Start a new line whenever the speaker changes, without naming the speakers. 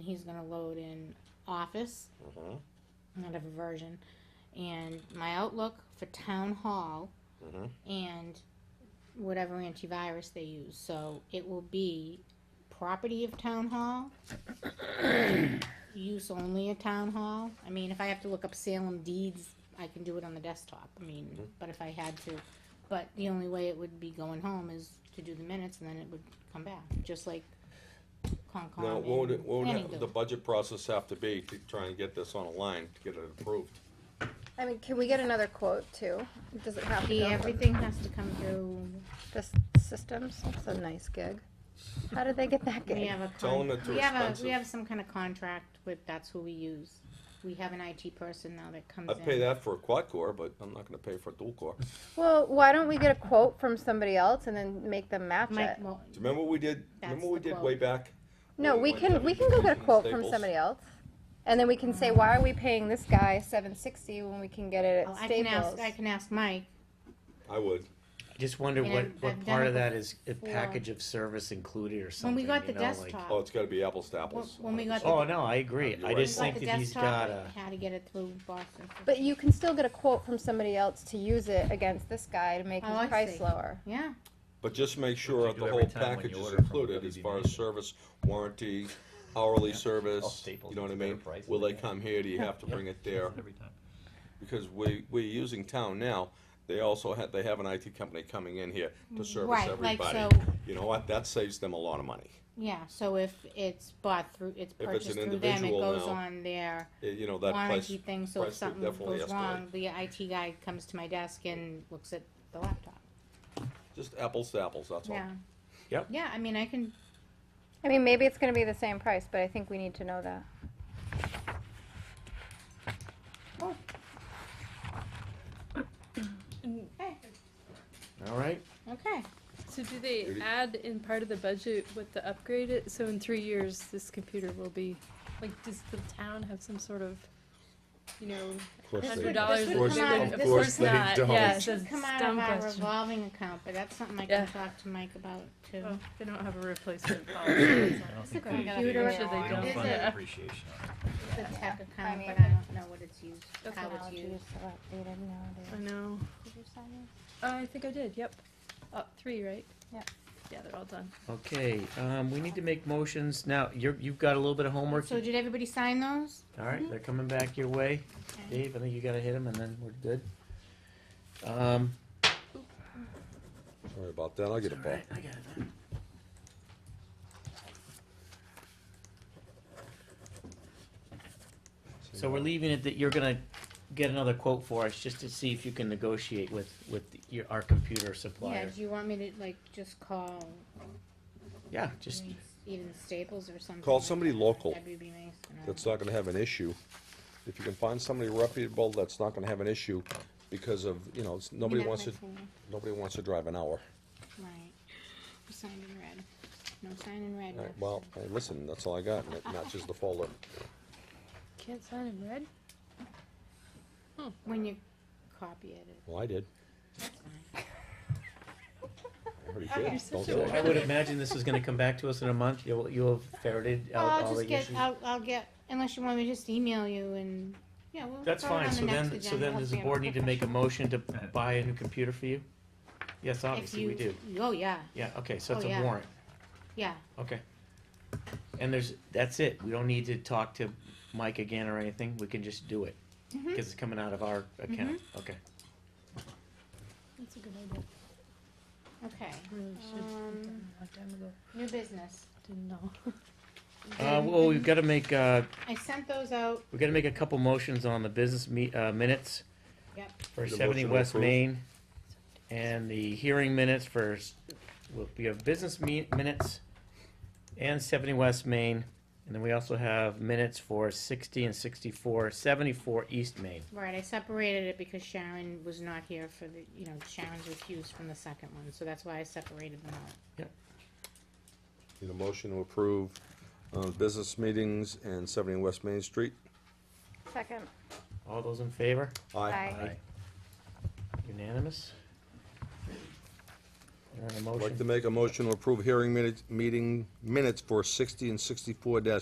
he's gonna load in Office.
Mm-hmm.
Not a version, and my Outlook for Town Hall
Mm-hmm.
and whatever antivirus they use. So it will be property of town hall, use only of town hall. I mean, if I have to look up Salem deeds, I can do it on the desktop. I mean,
Mm-hmm.
but if I had to, but the only way it would be going home is to do the minutes and then it would come back, just like Concom.
Now, what would, it-
and
what
planning
would the
do.
budget process have to be to try and get this on a line, to get it approved?
I mean, can we get another quote too? Does it have to
See,
go?
everything has to come through.
Just systems. That's a nice gig. How did they get that
We
gig?
have a
Tell
con-
them that they're
we have a,
expensive.
we have some kind of contract with, that's who we use. We have an IT person now that comes in.
I'd pay that for a quad core, but I'm not gonna pay for a dual core. Do
Well, why don't we get a quote from somebody else and then make them match
Mike,
it?
well,
you remember what we did,
That's
remember what we
the
did
quote.
way back?
No,
When
we
went
can,
down
we
to
can go get a
Staples?
quote from somebody else. And then we can say, why are we paying this guy seven sixty when we can get it
oh,
at
I can ask,
Staples?
I can ask Mike.
I would.
I just wonder
And
what,
I've-
what
I've done
part
it
of that is a
before.
package of service included or
When
something.
we got the
you know, like-
desktop.
Oh, it's gotta be apples to apples.
When- when we got the-
Oh, no, I agree.
You're
I
right.
just
we got
think
the
that he's
desktop,
got
like,
a,
How to get it through Boston.
But you can still get a quote from somebody else to use it against this guy to make
Oh, I
his price
see.
lower.
Yeah,
But just make sure
you
that
do
the
every
whole
time when
package
you
is
order from
included as far as
WD-90.
service, warranty, hourly service,
Staples
you know what I
gets a better
mean?
price
Will
than
they
they
come here, do you have to bring it there?
Every time.
Because we, we're using town now, they also have, they have an IT company coming in here to service
Right, like,
everybody.
so-
You know what, that saves them a lot of money.
yeah, so if it's bought through, it's
If it's an
purchased through them, it
individual
goes
now,
on their
Eh, You know, that price,
warranty thing, so if
price would
something
definitely
goes wrong, the IT guy comes to my desk and looks at the laptop.
just apples to apples, that's all.
Yeah.
Yep.
Yeah, I mean, I can,
I mean, maybe it's gonna be the same price, but I think we need to know that.
hey,
all right?
okay.
So do they
Maybe.
add in part of the budget with the upgrade it, so in three years, this computer will be, like, does the town have some sort of, you know,
This
course they
hundred
would-
dollars?
this
that
would
they
come out
would-
of-
Of
this
course
would-
not,
don't.
yeah,
This
it's
should
a
come out of
dumb
our
question.
revolving account, but that's something I can
Yeah.
talk to Mike about too.
Oh, They don't have a replacement policy.
I don't
It's
think
a
they-
computer
I'm sure they
They don't
Is
don't.
fund
it-
the
Yeah.
appreciation on
the
it.
tech
I
account,
mean,
but I don't know what it's used,
That's
how it's
Technology is
used.
so outdated nowadays.
I know.
Did you sign this?
I think I did, yep. Uh, three, right?
Yeah.
Yeah, they're all done.
Okay, um, we need to make motions. Now, you're, you've got a little bit of homework.
So did everybody sign those?
All right, they're coming back your way.
Okay.
Dave, I think you gotta hit him and then we're good. Um,
Sorry about that, I'll get a
all
ball.
right, I got it. So we're leaving it that you're gonna get another quote for us, just to see if you can negotiate with, with your, our computer
Yeah,
supplier.
do you want me to like just call
Yeah, just,
like, even Staples or something?
Call
like
somebody
that?
local.
That'd be nice. and, uh,
that's not gonna have an issue. If you can find somebody reputable, that's not gonna have an issue because of, you know, it's-
I
nobody
mean,
wants to,
that's my phone.
nobody wants to drive an hour.
Right. We signed in red. No sign in red.
All
no
right, Well,
sign.
hey, listen, that's all I got, and it matches the folder.
Can't sign in red?
When you copy it, it-
Well, I did.
that's fine.
I already did. Don't
such a
say
I
it.
would imagine this is gonna come back to us in a month, you'll, you'll have ferreted
Well,
out
I'll
all the
just get,
issues.
I'll, I'll get, unless you want me to just email you and, yeah, we'll.
That's
throw it
fine,
on the
so
next
then, so
agenda.
then does the
Hopefully I'm
board need to make a
professional.
motion to buy a new computer for you? Yes, obviously we
If
do.
you- Oh, yeah,
Yeah, okay, so
Oh,
it's a
yeah.
warrant,
yeah.
okay. And there's, that's it, we don't need to talk to Mike again or anything, we can just do it,
Mhm.
cause it's coming out of our account,
Mm-hmm.
okay.
That's a good idea.
Okay,
Really should have
Um,
done a long time ago.
new business.
Didn't know.
Mm-hmm.
Uh, well, we've gotta make, uh,
I sent those out.
we gotta make a couple motions on the business me, uh, minutes.
Yep.
For
Need a
seventy
motion to
West
approve?
Main, and the hearing minutes for, s- well, we have business me, minutes and seventy West Main, and then we also have minutes for sixty and 64, 74 East Main.
Right, I separated it because Sharon was not here for the, you know, Sharon's refused from the second one, so that's why I separated them out.
Need a motion to approve, uh, business meetings and seventy West Main Street?
Second.
All those in favor?
Aye.
Unanimous? You're on a
I'd like to
motion.
make a motion to approve hearing minutes, meeting minutes for sixty and sixty-four